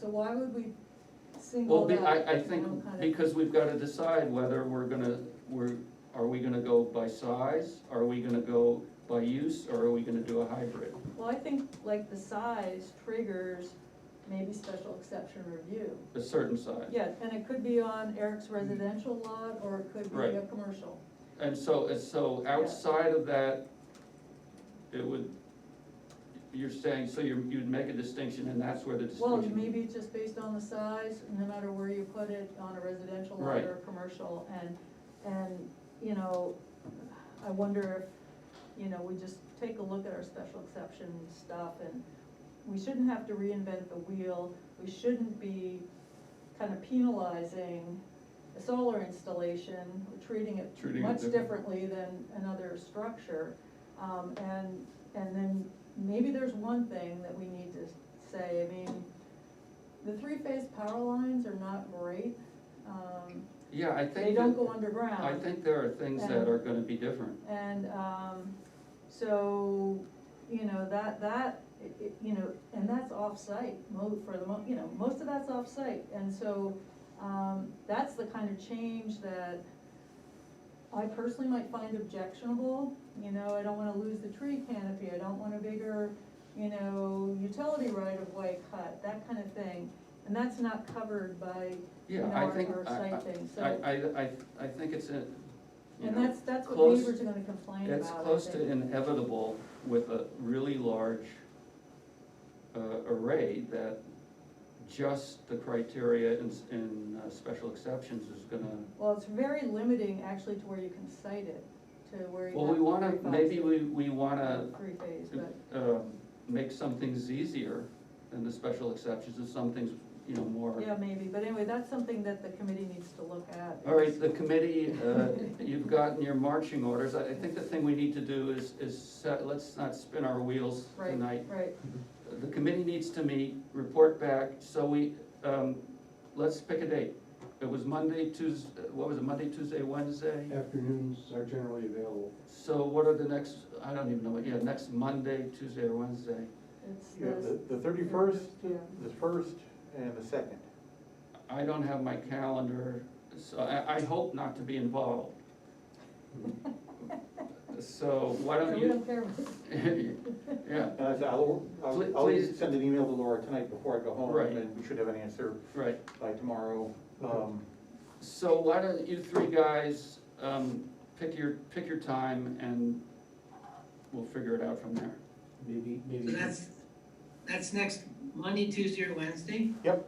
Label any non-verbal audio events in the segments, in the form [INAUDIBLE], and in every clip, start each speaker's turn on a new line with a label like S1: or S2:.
S1: So why would we
S2: Well,
S1: single
S2: be-
S1: that?
S2: I, I
S1: you know,
S2: think,
S1: kind of-
S2: because we've gotta decide whether we're gonna, we're, are we gonna go by size? Are we gonna go by use, or are we gonna do a hybrid?
S1: Well, I think like the size triggers maybe special exception review.
S2: A certain size?
S1: Yeah, and it could be on Eric's residential lot, or it could be a
S2: Mm-hmm. Right.
S1: commercial.
S2: And so, and so outside of that, it would, you're saying, so you're, you'd make a distinction, and that's where the
S1: Well,
S2: distinction.
S1: maybe it's just based on the size, no matter where you put it, on a residential lot
S2: Right.
S1: or a commercial, and, and, you know, I wonder if, you know, we just take a look at our special exception stuff, and we shouldn't have to reinvent the wheel, we shouldn't be kind of penalizing a solar installation, or treating it
S2: Treating it
S1: much
S2: different.
S1: differently than another structure. Um, and, and then maybe there's one thing that we need to say, I mean, the three-phase power lines are not great. Um,
S2: Yeah, I think.
S1: They don't
S2: that-
S1: go underground.
S2: I think there are things that are gonna be different.
S1: And, um, so, you know, that, that, it- it, you know, and that's off-site, mo, for the mo, you know, most of that's off-site, and so, um, that's the kind of change that I personally might find objectionable, you know, I don't wanna lose the tree canopy, I don't want a bigger, you know, utility right-of-way cut, that kind of thing, and that's not covered by, you
S2: Yeah,
S1: know,
S2: I
S1: our,
S2: think,
S1: our
S2: I,
S1: site thing, so.
S2: I, I, I, I think it's a, you
S1: And
S2: know,
S1: that's, that's what
S2: close-
S1: neighbors are gonna complain about.
S2: it's
S1: I
S2: close to
S1: think.
S2: inevitable with a really large uh, array that just the criteria in, s- in uh, special exceptions is gonna,
S1: Well, it's very limiting actually to where you can cite it, to where you
S2: well,
S1: have
S2: we
S1: to
S2: wanna,
S1: worry about
S2: maybe
S1: it.
S2: we, uh, we wanna,
S1: Three phase, but,
S2: um, make some things easier than the special exceptions and some things, you know, more.
S1: yeah, maybe, but anyway, that's something that the committee needs to look at.
S2: All right, the committee, uh, you've gotten your marching orders. I I think the thing we need to do is, is set, let's not spin our wheels
S1: Right,
S2: tonight.
S1: Right,
S2: The committee needs to meet, report back, so we, um, let's pick a date. It was Monday, Tuesday, what was it, Monday, Tuesday, Wednesday?
S3: Afternoons are generally available.
S2: So what are the next, I don't even know, yeah, next Monday, Tuesday or Wednesday?
S1: it's
S4: You have
S1: this,
S4: the, the thirty-first,
S1: Yeah.
S4: the first, and the second.
S2: I don't have my calendar, so I, I hope not to be involved. So why
S1: so
S2: don't
S1: we
S2: you, [LAUGHS]
S1: don't care. [LAUGHS] about-
S2: yeah,
S4: And I said, I'll,
S2: Please-
S4: I'll, I'll
S2: please.
S4: send an email to Laura tonight before I go home,
S2: Right.
S4: and then we should have an answer
S2: right.
S4: by tomorrow. Um,
S2: So why don't you three guys, um, pick your, pick your time and we'll figure it out from there.
S3: Maybe,
S5: So
S3: maybe,
S5: that's, that's next Monday, Tuesday, or Wednesday?
S4: Yep.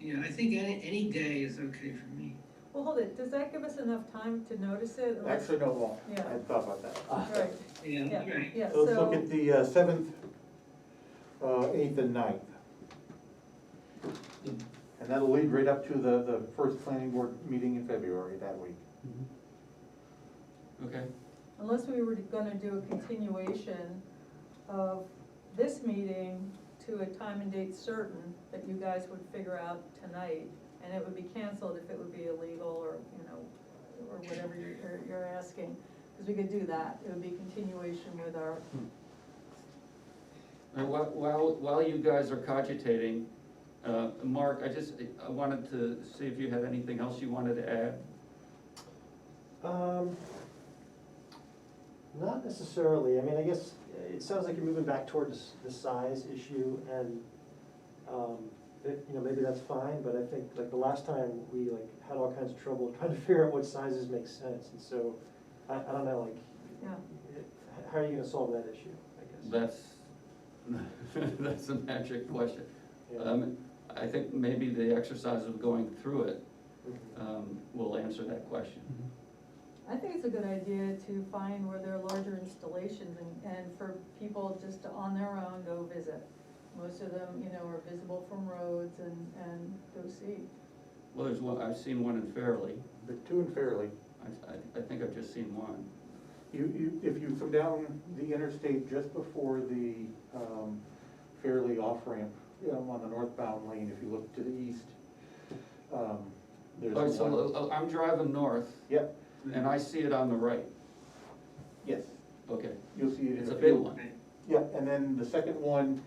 S5: Yeah, I think any, any day is okay for me.
S1: Well, hold it, does that give us enough time to notice it? Unless-
S4: Actually, no, it won't.
S1: Yeah.
S4: I thought about that.
S1: Right,
S5: Yeah,
S1: yeah,
S5: right.
S1: yeah,
S4: So let's look
S1: so,
S4: at the uh, seventh, uh, eighth, and ninth. And that'll lead right up to the, the first planning board meeting in February that week.
S3: Mhm.
S2: Okay,
S1: unless we were gonna do a continuation of this meeting to a time and date certain that you guys would figure out tonight, and it would be canceled if it would be illegal or, you know, or whatever you're- you're, you're asking, because we could do that, it would be continuation with our,
S2: and while, while, while you guys are cogitating, uh, Mark, I just, I wanted to see if you had anything else you wanted to add.
S6: Um, not necessarily, I mean, I guess, uh, it sounds like you're moving back toward this, the size issue and, um, it- you know, maybe that's fine, but I think, like, the last time, we like had all kinds of trouble [LAUGHS] trying to figure out what sizes make sense, and so, I, I don't know, like,
S1: yeah.
S6: it- how are you gonna solve that issue, I guess?
S2: That's, [LAUGHS] that's a magic question.
S6: Yeah.
S2: Um, I think maybe the exercise of going through it,
S6: Mhm.
S2: um, will answer that question.
S4: Mm-hmm.
S1: I think it's a good idea to find where there are larger installations and, and for people just to on their own go visit. Most of them, you know, are visible from roads and, and go see.
S2: Well, there's one, I've seen one in Fairleigh,
S4: The two and fairly.
S2: I, I, I think I've just seen one.
S4: You, you, if you come down the interstate just before the, um, fairly off ramp, you know, on the northbound lane, if you look to the east, um, there's
S2: All right,
S4: one.
S2: so uh, I'm driving north
S4: Yep,
S2: and I see it on the right,
S4: yes,
S2: okay,
S4: you'll see it in a
S2: it's
S4: few.
S2: a big one.
S5: Right.
S4: Yeah, and then the second one